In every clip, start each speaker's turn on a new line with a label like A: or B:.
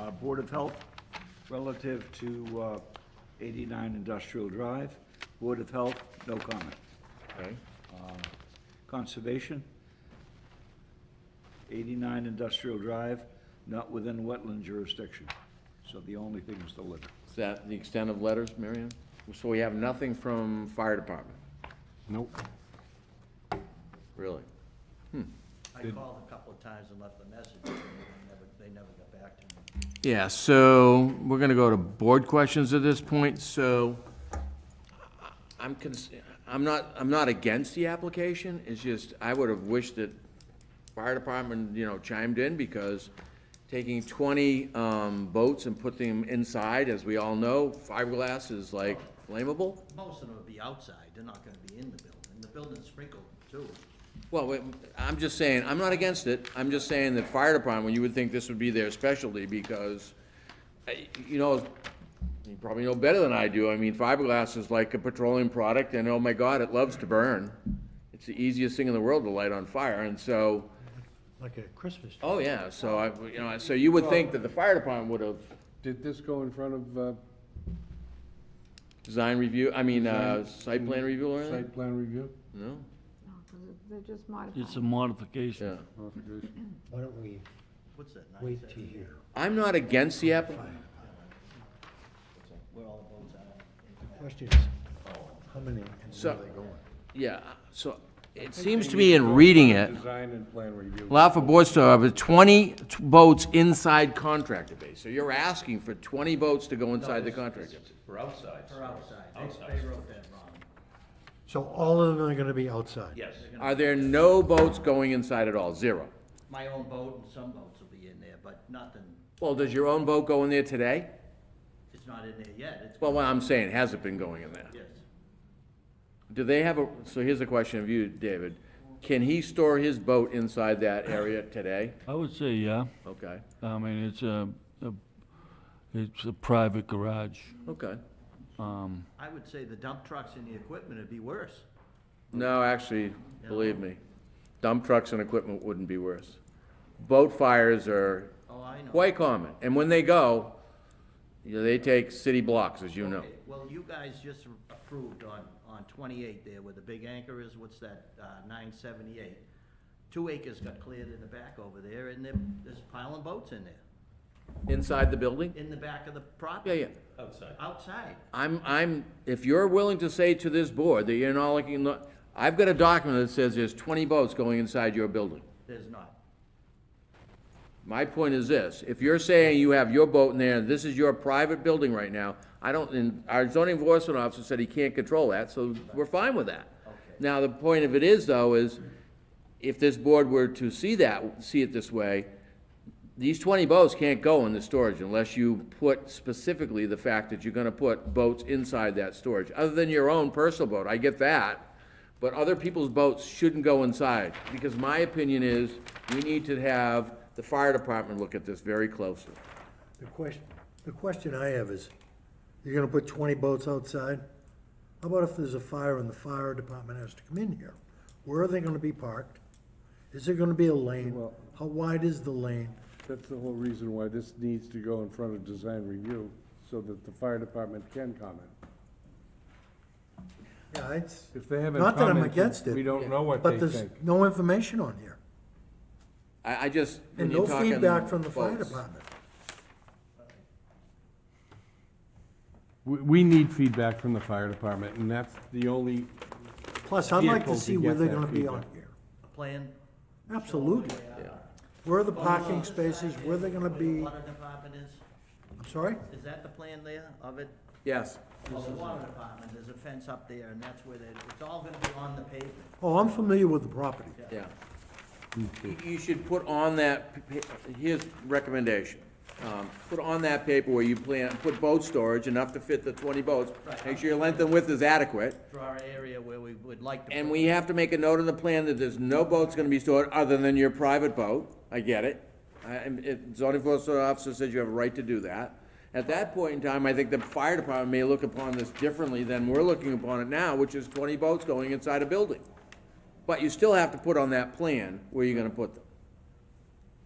A: Uh, Board of Health relative to uh, 89 Industrial Drive. Board of Health, no comment.
B: Okay.
A: Conservation, 89 Industrial Drive, not within wetland jurisdiction. So the only thing is the litter.
B: Is that the extent of letters, Marion? So we have nothing from fire department,
C: Nope.
B: really?
D: I called a couple of times and left a message, and they never, they never got back to me.
B: Yeah, so we're gonna go to board questions at this point, so I'm cons, I'm not, I'm not against the application, it's just, I would have wished that fire department, you know, chimed in, because taking twenty, um, boats and putting them inside, as we all know, fiberglass is like flammable.
D: Most of them would be outside, they're not gonna be in the building, the building's sprinkled too.
B: Well, wait, I'm just saying, I'm not against it, I'm just saying that fire department, you would think this would be their specialty, because, I- you know, you probably know better than I do, I mean, fiberglass is like a petroleum product, and oh my god, it loves to burn. It's the easiest thing in the world to light on fire, and so,
E: Like a Christmas tree.
B: oh yeah, so I, you know, so you would think that the fire department would have
C: Did this go in front of, uh,
B: design review, I mean, uh, site plan review or anything?
C: site plan review?
B: No?
F: No, 'cause it- They're just modified.
G: It's a modification.
B: Yeah.
C: Modification.
E: Why don't we
D: What's that, nine
E: wait to
D: seventy?
E: hear?
B: I'm not against the app,
D: Where all the boats are.
E: The question is, how many and where
B: So-
E: are they going?
B: yeah, so, it seems to me in reading it.
C: Design and plan review.
B: Allow for boats to have 20 t- boats inside contractor base. So you're asking for 20 boats to go inside the contractor. base.
H: For outside.
D: They're outside, they, they wrote that wrong.
E: So all of them are gonna be outside?
H: Yes.
B: Are there no boats going inside at all? Zero.
D: My own boat and some boats will be in there, but nothing,
B: Well, does your own boat go in there today?
D: it's not in there yet, it's,
B: Well, what I'm saying, has it been going in there?
D: yes.
B: Do they have a, so here's a question of you, David. Can he store his boat inside that area today?
G: I would say, yeah.
B: Okay,
G: I mean, it's a, a- it's a private garage.
B: okay.
D: I would say the dump trucks and the equipment would be worse.
B: No, actually, believe me, dump trucks and equipment wouldn't be worse. Boat fires are
D: Oh, I know.
B: Quite common, and when they go, you know, they take city blocks, as you know.
D: Okay, Well, you guys just approved on, on twenty-eight there where the big anchor is, what's that, uh, nine seventy-eight. Two acres got cleared in the back over there and there, there's piling boats in there,
B: Inside the building?
D: in the back of the
B: Yeah,
D: property.
B: yeah.
H: Outside.
D: Outside.
B: I'm, I'm, if you're willing to say to this board that you're not looking, I've got a document that says there's twenty boats going inside your building.
D: There's not.
B: My point is this, if you're saying you have your boat in there, and this is your private building right now, I don't, and our zoning enforcement officer said he can't control that, so we're fine with that. Now, the point of it is, though, is if this board were to see that, see it this way, these twenty boats can't go in the storage unless you put specifically the fact that you're gonna put boats inside that storage, other than your own personal boat, I get that. But other people's boats shouldn't go inside, because my opinion is, we need to have the fire department look at this very closely.
E: The question, the question I have is, you're gonna put twenty boats outside? How about if there's a fire and the fire department has to come in here? Where are they gonna be parked? Is there gonna be a lane?
C: Well-
E: How wide is the lane?
C: That's the whole reason why this needs to go in front of design review, so that the fire department can comment.
E: Yeah, it's,
C: If they haven't
E: Not that I'm against
C: commented,
E: it,
C: we don't know what they
E: but there's
C: think.
E: no information on here.
B: I, I just, when
E: And
B: you're
E: no
B: talking
E: feedback from the fire
B: boats-
E: department.
C: We, we need feedback from the fire department, and that's the only,
E: Plus, I'd like
C: Vehicle
E: to
C: to
E: see
C: get
E: where they're
C: that
E: gonna be
C: feedback.
E: on here.
D: A Plan,
E: Absolutely. Where are the parking spaces, where are they gonna
D: where the
E: be,
D: water department is,
E: I'm sorry?
D: is that the plan there of it?
B: Yes,
D: Well, the water department, there's a fence up there and that's where they, it's all gonna be on the pavement.
E: Oh, I'm familiar with the property.
B: yeah. You- You should put on that, p- p- here's recommendation, um, put on that paper where you plan, put boat storage enough to fit the twenty boats. Make sure your length and width is adequate,
D: Draw an area where we would like to.
B: and
D: put-
B: we have to make a note in the plan that there's no boats gonna be stored other than your private boat, I get it. I, and if zoning enforcement officer says you have a right to do that. At that point in time, I think the fire department may look upon this differently than we're looking upon it now, which is twenty boats going inside a building. But you still have to put on that plan where you're gonna put them,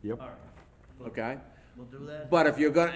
C: yep.
D: All right,
B: okay?
D: we'll do that.
B: But if you're gonna,